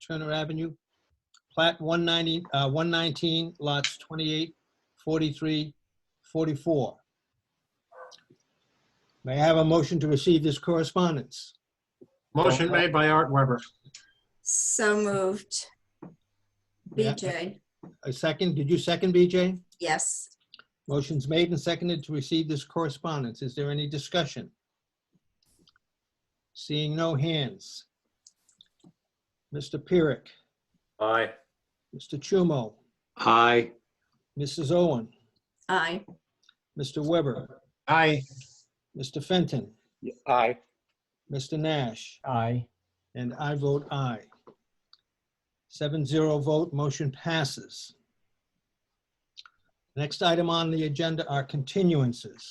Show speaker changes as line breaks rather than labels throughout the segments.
Turner Avenue. Plat 190, uh, 119, lots 28, 43, 44. May I have a motion to receive this correspondence?
Motion made by Art Weber.
So moved.
Yeah.
BJ,
A second, did you second, BJ?
yes.
Motion's made and seconded to receive this correspondence. Is there any discussion? Seeing no hands. Mr. Pyrick,
Aye.
Mr. Chumo,
Aye.
Mrs. Owen,
Aye.
Mr. Weber,
Aye.
Mr. Fenton,
Aye.
Mr. Nash,
Aye.
and I vote aye. Seven zero vote, motion passes. Next item on the agenda are continuances.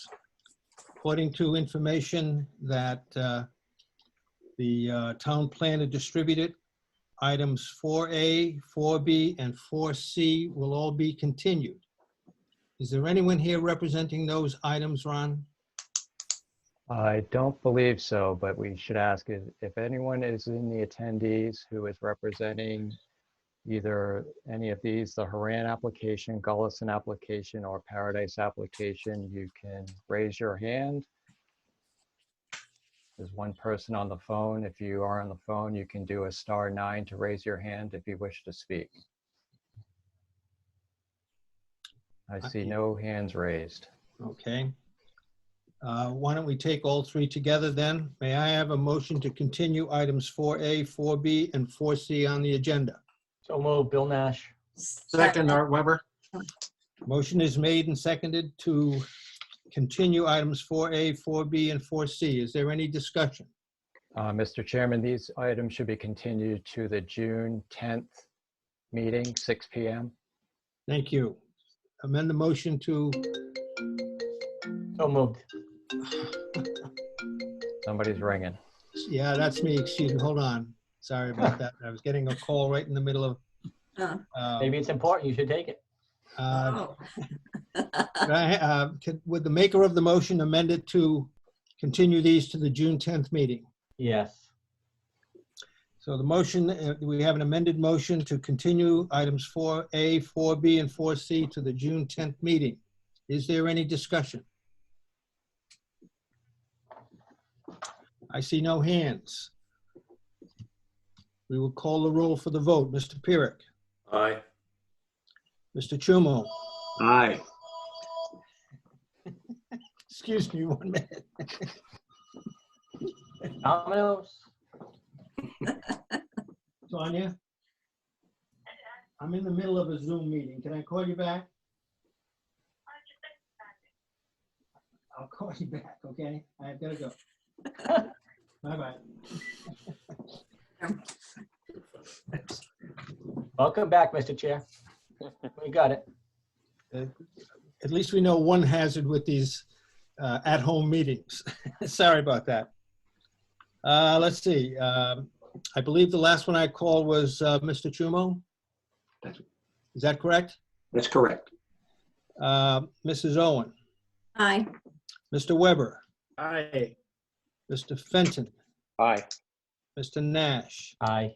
According to information that uh, the uh, town planner distributed, items 4A, 4B, and 4C will all be continued. Is there anyone here representing those items, Ron?
I don't believe so, but we should ask if, if anyone is in the attendees who is representing either any of these, the Haran application, Gullison application, or Paradise application, you can raise your hand. There's one person on the phone. If you are on the phone, you can do a star nine to raise your hand if you wish to speak. I see no hands raised.
Okay. Uh, Why don't we take all three together then? May I have a motion to continue items 4A, 4B, and 4C on the agenda?
So moved, Bill Nash.
Second, Art Weber.
Motion is made and seconded to continue items 4A, 4B, and 4C. Is there any discussion?
Uh, Mr. Chairman, these items should be continued to the June 10th meeting, 6 PM.
Thank you. Amend the motion to,
So moved.
Somebody's ringing.
yeah, that's me, excuse me, hold on. Sorry about that. I was getting a call right in the middle of.
Uh,
uh,
Maybe it's important, you should take it.
uh,
oh,
Could I, uh, could- Would the maker of the motion amend it to continue these to the June 10th meeting?
Yes.
So the motion, uh, we have an amended motion to continue items 4A, 4B, and 4C to the June 10th meeting. Is there any discussion? I see no hands. We will call the roll for the vote. Mr. Pyrick,
Aye.
Mr. Chumo,
Aye.
excuse me one minute,
Dominoes?
Sonia? I'm in the middle of a Zoom meeting. Can I call you back? I'll call you back, okay? I've got to go. Bye-bye.
Welcome back, Mr. Chair. We got it.
At least we know one hazard with these uh, at-home meetings. Sorry about that. Uh, Let's see. um, I believe the last one I called was uh, Mr. Chumo.
That's-
Is that correct?
That's correct.
Uh, Mrs. Owen,
Aye.
Mr. Weber,
Aye.
Mr. Fenton,
Aye.
Mr. Nash,
Aye.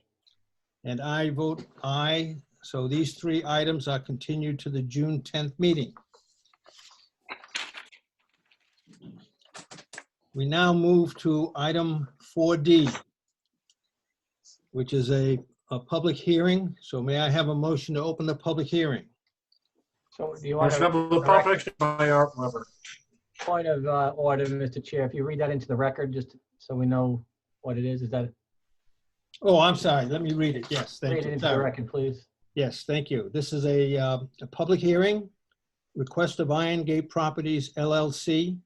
And I vote aye. So these three items are continued to the June 10th meeting. We now move to item 4D, which is a, a public hearing. So may I have a motion to open the public hearing?
So do you want
Motion
a
of the public by Art Weber.
point of uh, order, Mr. Chair? If you read that into the record, just so we know what it is, is that,
Oh, I'm sorry. Let me read it. Yes, thank
read it
you.
into the
Sorry.
record, please.
Yes, thank you. This is a, uh, a public hearing, request of Iron Gate Properties LLC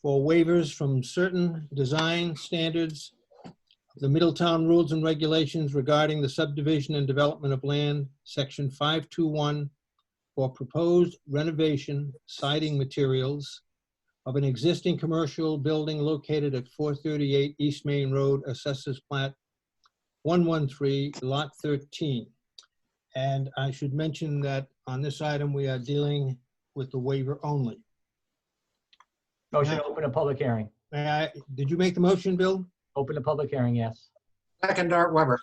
for waivers from certain design standards of the Middletown Rules and Regulations regarding the subdivision and development of land, section 521, for proposed renovation siding materials of an existing commercial building located at 438 East Main Road, Assessors Plat 113, Lot 13. And I should mention that on this item, we are dealing with the waiver only.
Motion to open a public hearing.
May I, did you make the motion, Bill?
Open a public hearing, yes.
Second, Art Weber.